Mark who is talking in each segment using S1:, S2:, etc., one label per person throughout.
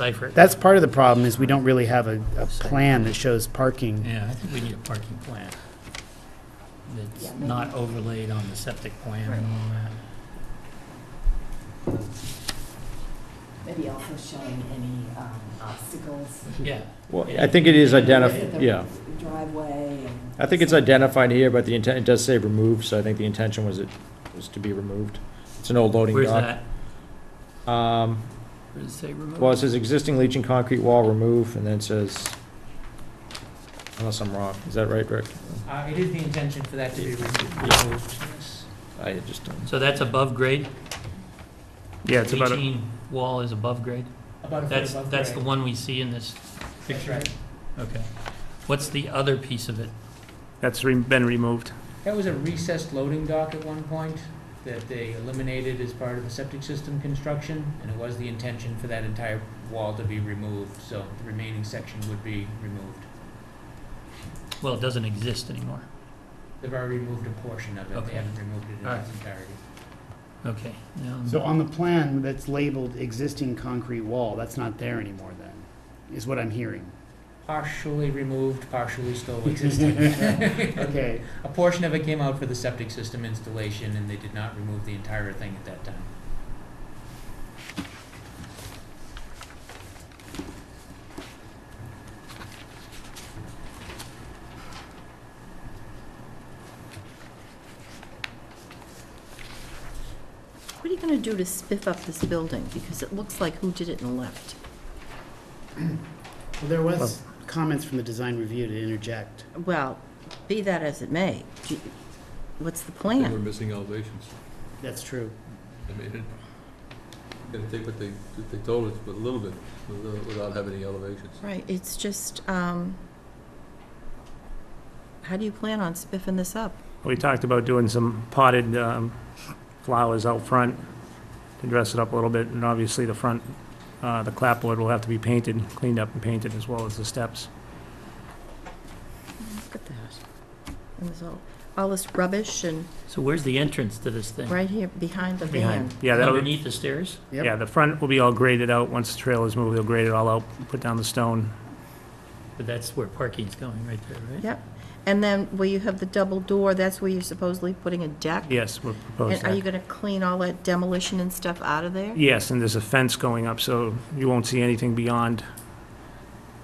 S1: cipher it.
S2: That's part of the problem, is we don't really have a, a plan that shows parking.
S1: Yeah, I think we need a parking plan that's not overlaid on the septic plan and all that.
S3: Maybe also showing any um, obstacles.
S1: Yeah.
S4: Well, I think it is
S3: Look at
S4: identif,
S3: the
S4: yeah.
S3: Driveway and.
S4: I think it's identified here, but the intent, it does say remove, so I think the intention was it, was to be removed. It's an old loading
S1: Where's
S4: dock.
S1: that?
S4: Um,
S1: Where does it say remote?
S4: well, it says existing leaching concrete wall remove, and then it says, unless I'm wrong, is that right, Rick?
S5: Uh, It is the intention for that to be
S4: Yeah.
S5: removed, yes.
S4: I just don't.
S1: So that's above grade?
S6: Yeah, it's about, a-
S1: Leaching wall is above grade?
S5: About a foot
S1: That's,
S5: above
S1: that's the
S5: grade.
S1: one we see in this
S5: That's
S1: picture?
S5: right.
S1: Okay. What's the other piece of it?
S6: that's re- been removed.
S5: That was a recessed loading dock at one point that they eliminated as part of the septic system construction, and it was the intention for that entire wall to be removed, so the remaining section would be removed.
S1: Well, it doesn't exist anymore.
S5: They've already removed a portion of it,
S1: Okay.
S5: they haven't removed it in
S1: All right.
S5: its entirety.
S1: Okay. now-
S2: So on the plan that's labeled existing concrete wall, that's not there anymore then, is what I'm hearing.
S5: Partially removed, partially still existing.
S2: Okay,
S5: A portion of it came out for the septic system installation, and they did not remove the entire thing at that time.
S7: What are you going to do to spiff up this building? Because it looks like who did it and left.
S2: well, there was comments from the design review to interject.
S7: Well, be that as it may, do you- what's the plan?
S8: missing elevations.
S2: That's true.
S8: I mean, it, gonna take what they, they told us, but a little bit, without- without having any elevations.
S7: Right, it's just, um, how do you plan on spiffing this up?
S6: We talked about doing some potted um, flowers out front to dress it up a little bit, and obviously the front, uh, the clapboard will have to be painted, cleaned up and painted, as well as the steps.
S7: Look at that. And there's all, all this rubbish and
S1: So where's the entrance to this thing?
S7: right here behind the van.
S6: Behind, yeah, that'll,
S1: Underneath the stairs?
S2: Yep.
S6: yeah, the front will be all graded out. Once the trailer's moved, they'll grade it all out, put down the stone.
S1: But that's where parking's going, right there, right?
S7: Yep. And then where you have the double door, that's where you're supposedly putting a deck?
S6: Yes, we're
S7: And are you
S6: proposing that.
S7: going to clean all that demolition and stuff out of there?
S6: Yes, and there's a fence going up, so you won't see anything beyond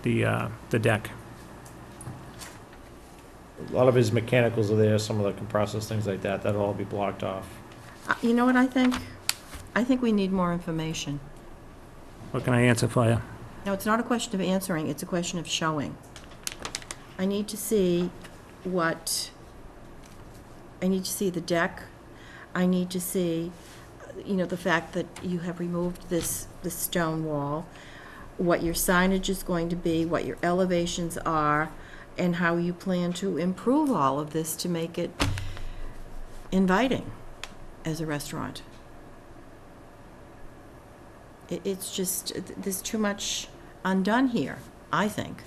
S6: the, uh, the deck.
S4: A lot of his mechanicals are there, some of the compressors, things like that, that'll all be blocked off.
S7: Uh, You know what I think? I think we need more information.
S6: What can I answer for you?
S7: No, it's not a question of answering, it's a question of showing. I need to see what, I need to see the deck. I need to see, you know, the fact that you have removed this, this stone wall, what your signage is going to be, what your elevations are, and how you plan to improve all of this to make it inviting as a restaurant. It, it's just, th- there's too much undone here, I think.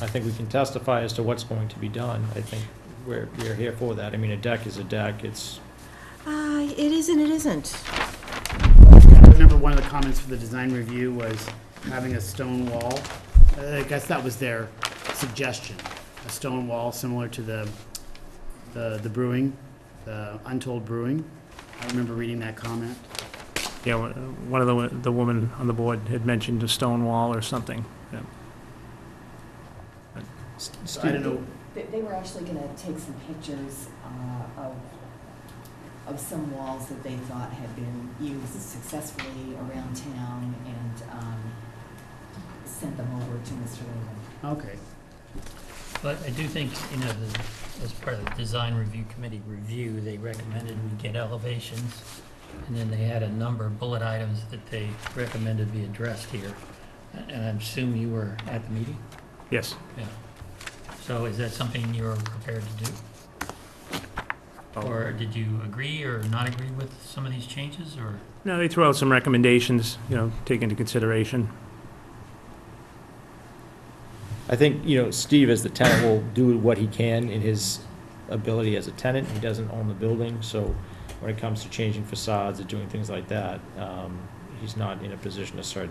S4: I think we can testify as to what's going to be done. I think we're, we're here for that. I mean, a deck is a deck, it's,
S7: Uh, it is and it isn't.
S2: I remember one of the comments for the design review was having a stone wall. I guess that was their suggestion, a stone wall similar to the, the the brewing, the Untold Brewing. I remember reading that comment.
S6: Yeah, one one of the, wo- the woman on the board had mentioned a stone wall or something. yeah.
S2: So I don't know,
S3: They, they were actually gonna take some pictures uh, of, of some walls that they thought had been used successfully around town and um, send them over to Mr. Lehman.
S2: okay.
S1: But I do think, you know, the- as part of the design review committee review, they recommended we get elevations. And then they had a number of bullet items that they recommended be addressed here. And I assume you were at the meeting?
S6: Yes,
S1: So is that something you're prepared to do? Or did you agree or not agree with some of these changes, or?
S6: no, they threw out some recommendations, you know, take into consideration.
S4: I think, you know, Steve as the tenant will do what he can in his ability as a tenant. He doesn't own the building, so when it comes to changing facades or doing things like that, um, he's not in a position to start